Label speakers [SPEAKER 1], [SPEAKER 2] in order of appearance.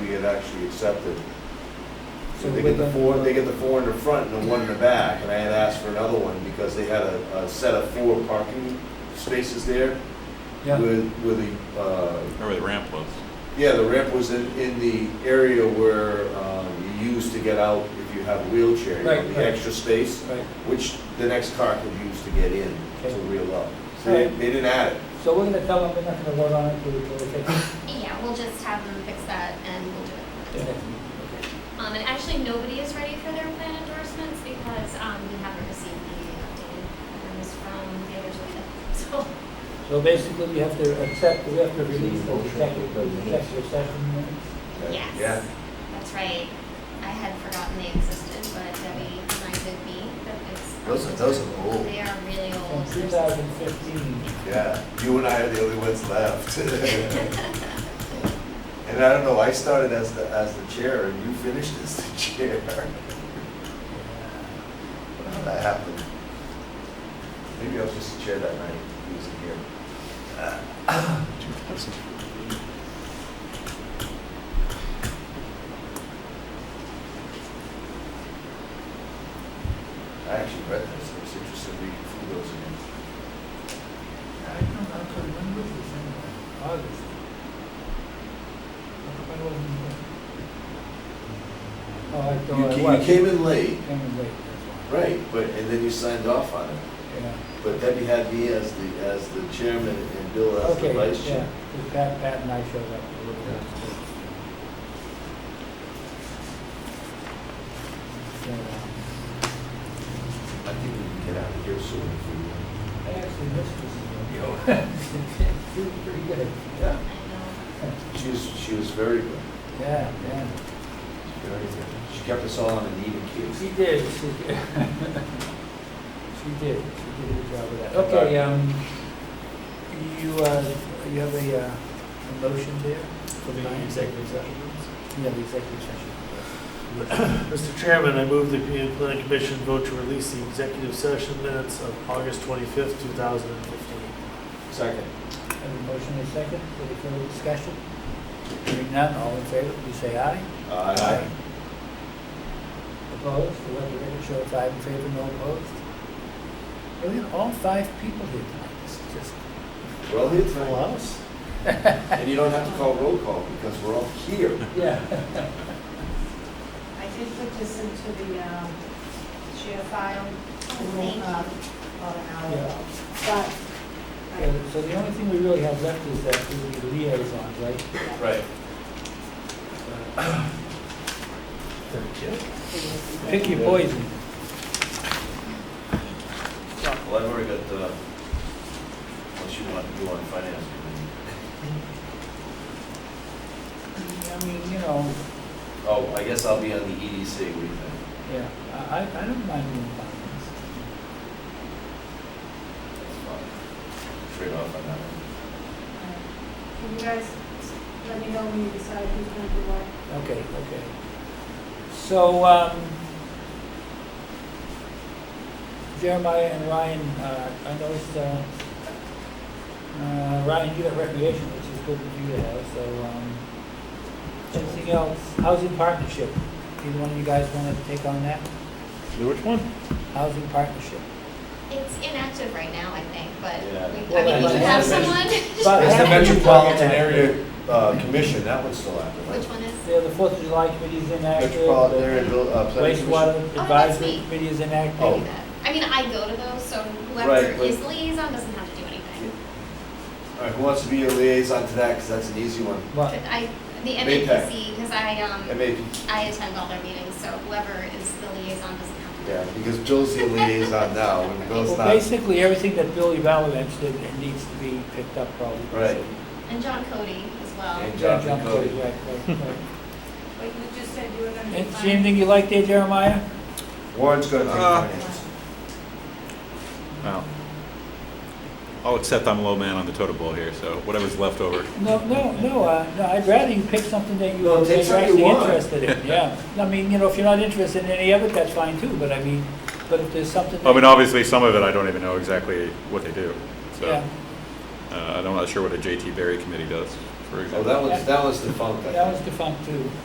[SPEAKER 1] it actually accepted.
[SPEAKER 2] So
[SPEAKER 1] They
[SPEAKER 2] with
[SPEAKER 1] get the
[SPEAKER 2] the-
[SPEAKER 1] four, they get the four in the front and the one in the back, and I had asked for another one because they had a, a set of four parking spaces there
[SPEAKER 2] Yeah,
[SPEAKER 1] with, with the, uh,
[SPEAKER 3] Remember the ramp was?
[SPEAKER 1] yeah, the ramp was in, in the area where, um, you use to get out if you have a wheelchair. you know,
[SPEAKER 2] Right,
[SPEAKER 1] The
[SPEAKER 2] right.
[SPEAKER 1] extra space,
[SPEAKER 2] right.
[SPEAKER 1] which the next car could use to get in to
[SPEAKER 2] Okay.
[SPEAKER 1] reel up. So they,
[SPEAKER 2] Alright.
[SPEAKER 1] they didn't add it.
[SPEAKER 2] So we're gonna tell them we're not gonna vote on it till we, till we fix it.
[SPEAKER 4] Yeah, we'll just have them fix that and we'll do it.
[SPEAKER 2] Okay.
[SPEAKER 4] Um, and actually, nobody is ready for their plan endorsements because, um, we haven't received the updated plans from the other two. So,
[SPEAKER 2] So basically, we have to accept, we have to release the executive, the executive session minutes.
[SPEAKER 4] yes.
[SPEAKER 1] Yeah.
[SPEAKER 4] That's right. I had forgotten they existed, but Debbie reminded me that it's.
[SPEAKER 1] Those are- those are old.
[SPEAKER 4] They are really
[SPEAKER 2] From
[SPEAKER 4] old.
[SPEAKER 2] two thousand fifteen,
[SPEAKER 1] Yeah, you and I are the only ones left. And I don't know, I started as the, as the chair and you finished as the chair. How'd that happen? Maybe I was just the chair that night, he was in here. I actually read this, it was interesting reading through those again.
[SPEAKER 2] I don't know, I could remember this in August. I don't remember. Oh, I
[SPEAKER 1] You
[SPEAKER 2] don't, I
[SPEAKER 1] ca-
[SPEAKER 2] was.
[SPEAKER 1] You came in late,
[SPEAKER 2] Came in late, that's why.
[SPEAKER 1] right, but, and then you signed off on it.
[SPEAKER 2] Yeah.
[SPEAKER 1] But Debbie had me as the, as the chairman and Bill as the
[SPEAKER 2] Okay,
[SPEAKER 1] vice
[SPEAKER 2] yeah,
[SPEAKER 1] chair.
[SPEAKER 2] 'cause Pat, Pat and I showed up a little bit. So, uh,
[SPEAKER 1] I think we can get out of here soon if we.
[SPEAKER 2] I actually missed this one.
[SPEAKER 1] Yo.
[SPEAKER 2] She was pretty good.
[SPEAKER 1] Yeah,
[SPEAKER 4] I know.
[SPEAKER 1] she was, she was very good,
[SPEAKER 2] Yeah, yeah.
[SPEAKER 1] very good. She kept us all on an even keel.
[SPEAKER 2] She did, she did. She did, she did a good job with that. Okay, um, you, uh, you have a, uh, a motion there for the executive session? Yeah, the executive session.
[SPEAKER 5] Mr. Chairman, I move the Community Planning Commission vote to release the executive session minutes of August 25th, 2015.
[SPEAKER 1] Second.
[SPEAKER 2] Have a motion and a second, any further discussion? Hearing none, all in favor, please say aye.
[SPEAKER 1] Aye.
[SPEAKER 2] Opposed, the record show five in favor, no opposed. And we had all five people here tonight, this is just,
[SPEAKER 1] We're all here tonight, and you don't have to call roll call because we're all here.
[SPEAKER 2] yeah.
[SPEAKER 6] I did put this into the um, share file
[SPEAKER 4] Oh, Thank you.
[SPEAKER 6] um, about an hour
[SPEAKER 2] Yeah.
[SPEAKER 6] ago. But
[SPEAKER 2] Yeah,
[SPEAKER 6] I
[SPEAKER 2] So the only thing we really have left is that we need liaisons, right?
[SPEAKER 1] Right.
[SPEAKER 2] Pick your poison.
[SPEAKER 1] Well, I've already got, uh, what you want to do on finance.
[SPEAKER 2] I mean, you know,
[SPEAKER 1] Oh, I guess I'll be on the EDC, what do you think?
[SPEAKER 2] yeah, I, I I don't mind being finance.
[SPEAKER 1] That's fine. Trade off on that one.
[SPEAKER 6] uh, Can you guys let me know when you decide who's going to do what?
[SPEAKER 2] Okay, okay. So, um, Jeremiah and Ryan, uh, I noticed, uh, uh, Ryan, you got recreation, which is good that you have, so, um, anything else? Housing partnership, either one of you guys wanna take on that?
[SPEAKER 3] Which one?
[SPEAKER 2] Housing partnership.
[SPEAKER 4] It's inactive right now, I think, but
[SPEAKER 1] Yeah.
[SPEAKER 4] we, I
[SPEAKER 2] Well,
[SPEAKER 4] mean,
[SPEAKER 2] that's-
[SPEAKER 4] we
[SPEAKER 2] that's-
[SPEAKER 4] have someone.
[SPEAKER 2] But-
[SPEAKER 1] It's the Metropolitan Area uh, Commission, that one's still active,
[SPEAKER 4] Which
[SPEAKER 1] right?
[SPEAKER 4] one is?
[SPEAKER 2] Yeah, the Fourth of July committee is inactive.
[SPEAKER 1] Metropolitan Area
[SPEAKER 2] the
[SPEAKER 1] Bill- uh, Planning Commission.
[SPEAKER 2] Wastewater
[SPEAKER 4] Oh,
[SPEAKER 2] advisory
[SPEAKER 4] that's me.
[SPEAKER 2] committee is inactive.
[SPEAKER 1] Oh.
[SPEAKER 4] do that. I mean, I go to those, so
[SPEAKER 1] Right,
[SPEAKER 4] whoever
[SPEAKER 1] but-
[SPEAKER 4] is liaison doesn't have to do anything.
[SPEAKER 1] All right, who wants to be a liaison to that, because that's an easy one.
[SPEAKER 2] But,
[SPEAKER 4] But I, the
[SPEAKER 1] Maytag.
[SPEAKER 4] MAPC, because I, um,
[SPEAKER 1] MAP,
[SPEAKER 4] I attend all their meetings, so whoever is the liaison doesn't have to.
[SPEAKER 1] yeah, because Bill's the liaison now, and Bill's
[SPEAKER 2] well,
[SPEAKER 1] not.
[SPEAKER 2] basically, everything that Billy Valance did needs to be picked up probably.
[SPEAKER 1] Right.
[SPEAKER 4] And John Cody as well.
[SPEAKER 1] And
[SPEAKER 2] Yeah,
[SPEAKER 1] John
[SPEAKER 2] John
[SPEAKER 1] Cody.
[SPEAKER 2] Cody, right, right, right.
[SPEAKER 6] But you just said you were going to do
[SPEAKER 2] And
[SPEAKER 6] finance.
[SPEAKER 2] same thing you like there, Jeremiah?
[SPEAKER 1] Warren's gonna take
[SPEAKER 3] Uh,
[SPEAKER 1] finance.
[SPEAKER 3] No. Oh, except I'm low man on the totem pole here, so whatever's left over.
[SPEAKER 2] No, no, no, uh, no, I'd rather you pick something that you-
[SPEAKER 1] No,
[SPEAKER 2] that
[SPEAKER 1] take
[SPEAKER 2] you're
[SPEAKER 1] something
[SPEAKER 2] actually
[SPEAKER 1] you want.
[SPEAKER 2] interested in, yeah. I mean, you know, if you're not interested in any of it, that's fine too, but I mean, but if there's something.
[SPEAKER 3] I mean,
[SPEAKER 2] that-
[SPEAKER 3] obviously, some of it I don't even know exactly what they do.
[SPEAKER 2] Yeah,
[SPEAKER 3] So uh, I'm not sure what a JT Berry committee does, for
[SPEAKER 1] Oh,
[SPEAKER 3] example.
[SPEAKER 1] that one's, that one's defunct, I think.
[SPEAKER 2] that was defunct too.